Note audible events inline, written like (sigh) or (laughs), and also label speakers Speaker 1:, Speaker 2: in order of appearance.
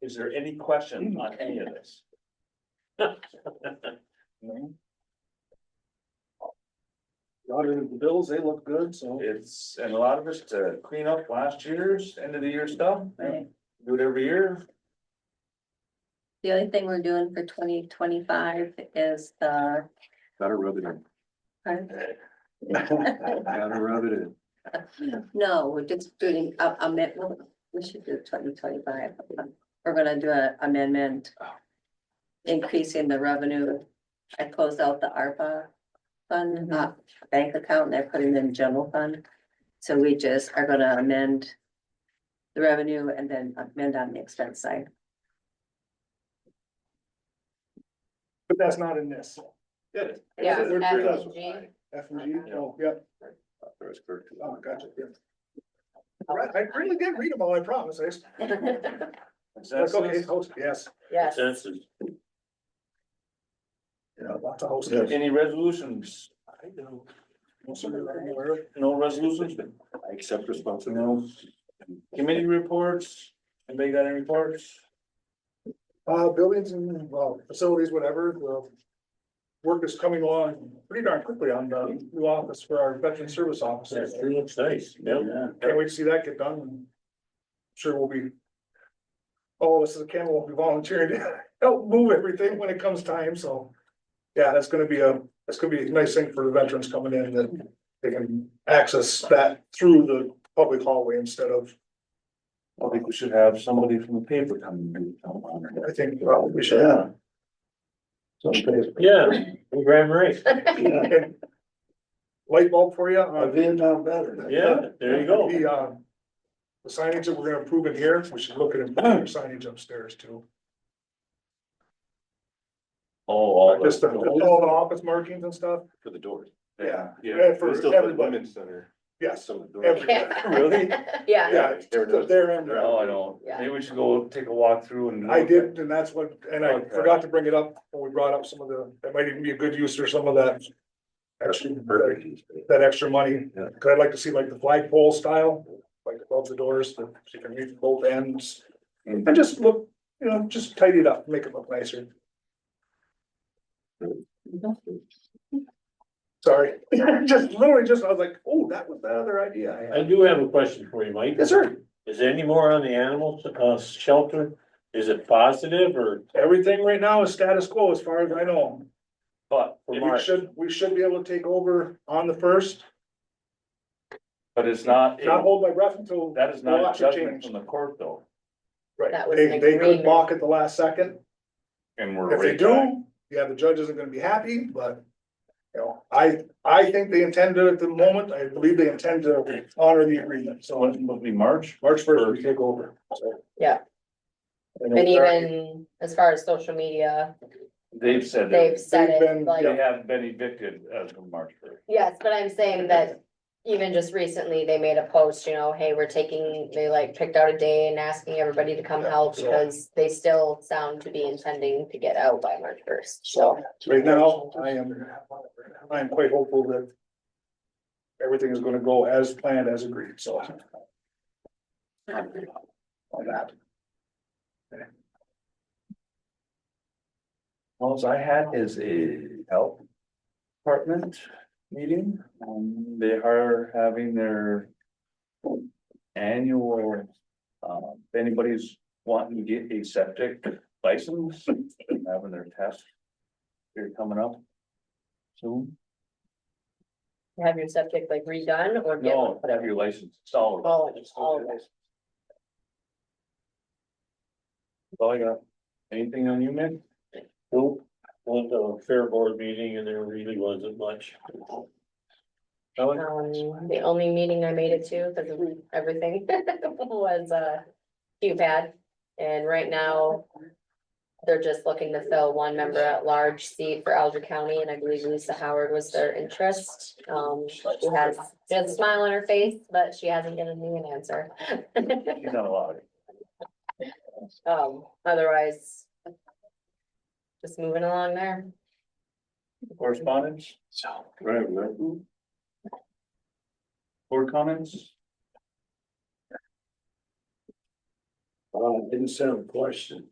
Speaker 1: Is there any question
Speaker 2: Hmm.
Speaker 1: on any of
Speaker 2: (laughs)
Speaker 1: this?
Speaker 3: Audited the bills, they look good, so.
Speaker 1: It's, and a lot of us to clean up last year's end of the year stuff,
Speaker 4: Right.
Speaker 1: do it every year.
Speaker 2: (laughs)
Speaker 4: The only thing we're doing for twenty twenty-five is the,
Speaker 3: Gotta rub it in, gotta rub it in.
Speaker 4: no, we're just doing a amendment, we should do twenty twenty-five. We're gonna do an amendment. Increasing the revenue. I closed out the ARPA fund, uh, bank account, and I put it in general fund. So we just are gonna amend the revenue and then amend on the expense side.
Speaker 2: But that's not in this.
Speaker 1: Good.
Speaker 5: Yeah,
Speaker 1: Good.
Speaker 5: F and
Speaker 1: Good.
Speaker 5: G.
Speaker 2: F and G, oh, yep,
Speaker 3: Authorized clerk to-
Speaker 2: oh, gotcha, yeah. Right, I really did read them all, I promise, I just, like, okay,
Speaker 1: Consensus?
Speaker 2: host, yes,
Speaker 5: Yes,
Speaker 1: Consensus.
Speaker 2: yeah, lots of hosts.
Speaker 3: Yes.
Speaker 1: Any resolutions?
Speaker 2: I know. Most of them I'm aware of.
Speaker 1: No resolutions?
Speaker 3: I accept responsibility.
Speaker 1: No. Committee reports? Anybody got any reports?
Speaker 2: Uh, buildings and, well, facilities, whatever, the work is coming along pretty darn quickly on the new office for our veteran service officers.
Speaker 1: looks nice. Yeah.
Speaker 2: Can't wait to see that get done. and Sure we'll be. All of us at the camp will be volunteering to (laughs) help move everything when it comes time, so. Yeah, that's gonna be a, that's gonna be a nice thing for the veterans coming in that they can access that through the public hallway instead of,
Speaker 1: I think we should have somebody from the paper come and come on.
Speaker 2: I think, well, we should. have.
Speaker 1: (laughs) Yeah, Graham Race.
Speaker 2: And Light bulb for Uh, you. on-
Speaker 3: Vietnam better.
Speaker 1: there
Speaker 2: The, uh, the signage that we're gonna approve in here, we should look at improving signage upstairs too.
Speaker 1: Oh, all
Speaker 2: Just the,
Speaker 1: the.
Speaker 2: all the office markings and stuff.
Speaker 3: For the doors.
Speaker 2: Yeah.
Speaker 3: Yeah,
Speaker 2: For
Speaker 3: for still have the
Speaker 2: everybody.
Speaker 3: women's center.
Speaker 2: Yes,
Speaker 3: Some of the doors.
Speaker 2: every,
Speaker 1: Really?
Speaker 5: yeah,
Speaker 2: yeah, it's the- there and there.
Speaker 1: No, I don't.
Speaker 5: Yeah.
Speaker 1: Maybe we should go take a walk through and.
Speaker 2: I did, and that's what, and I
Speaker 1: Okay.
Speaker 2: forgot to bring it up when we brought up some of the, that might even be a good use for some of that. Extra, that- that extra money,
Speaker 3: Yeah.
Speaker 2: cause I'd like to see like the flagpole style, like above the doors, that you can reach both ends.
Speaker 3: Mm.
Speaker 2: And just look, you know, just tidy it up, make it look nicer, sorry, (laughs) just literally just, I was like, oh, that was that other idea I
Speaker 6: I
Speaker 2: had.
Speaker 6: do have a question for you, Mike.
Speaker 2: Yes, sir.
Speaker 6: Is there any more on the animal uh shelter? Is it positive or
Speaker 2: Everything right now is status quo as far as I know.
Speaker 1: But,
Speaker 6: for
Speaker 2: We
Speaker 6: March?
Speaker 2: should, we should be able to take over on the first,
Speaker 1: but it's not,
Speaker 2: not hold my breath until.
Speaker 1: that is
Speaker 2: the
Speaker 1: not a
Speaker 2: lots are
Speaker 1: judgment
Speaker 2: changed.
Speaker 1: from the court though.
Speaker 2: Right,
Speaker 5: That was
Speaker 2: they,
Speaker 5: an
Speaker 2: they could
Speaker 5: agreement.
Speaker 2: balk at the last second.
Speaker 1: And we're.
Speaker 2: If they
Speaker 1: right back.
Speaker 2: do, yeah, the judge isn't gonna be happy, but. You know, I, I think they intend to at the moment, I believe they intend to honor the agreement,
Speaker 1: So
Speaker 2: so
Speaker 1: when will be March?
Speaker 2: March first, we take over. so.
Speaker 5: Yeah.
Speaker 2: And
Speaker 5: and
Speaker 2: it'll start-
Speaker 5: even as far as social media,
Speaker 1: They've said that
Speaker 5: they've said
Speaker 2: They've been-
Speaker 5: it
Speaker 1: they
Speaker 5: like,
Speaker 1: have been evicted as of March first.
Speaker 5: yes, but I'm saying that. Even just recently, they made a post, you know, hey, we're taking, they like picked out a day and asking everybody to come
Speaker 2: Yeah,
Speaker 5: help
Speaker 2: so-
Speaker 5: because they still sound to be intending to get out by March first, so.
Speaker 2: Right now, I am, I am quite hopeful that. Everything is gonna go as planned, as agreed, so. On that.
Speaker 1: Well, so I had is a health department meeting. Um, they are having their annual, um, if anybody's wanting to get a septic license, they're having their test. They're coming up soon.
Speaker 5: Have your subject like redone or get one
Speaker 1: No,
Speaker 5: put
Speaker 1: have
Speaker 5: in?
Speaker 1: your license installed.
Speaker 5: Oh, all of that.
Speaker 1: All I got. Anything on you, Mick?
Speaker 6: Nope. Went to a fair board meeting and there really wasn't much.
Speaker 1: Ellen?
Speaker 5: Um, the only meeting I made it to, because of everything, (laughs) was uh QPAD. And right now, they're just looking to fill one member at large seat for Alger County, and I believe Lisa Howard was their interest. Um, she has, she has a smile on her face, but she hasn't given me an answer. (laughs)
Speaker 1: She's not allowed.
Speaker 5: Um, otherwise, just moving along there.
Speaker 1: Correspondence?
Speaker 3: Right, right.
Speaker 1: Mm-hmm. Board comments?
Speaker 3: Uh, I just have a question.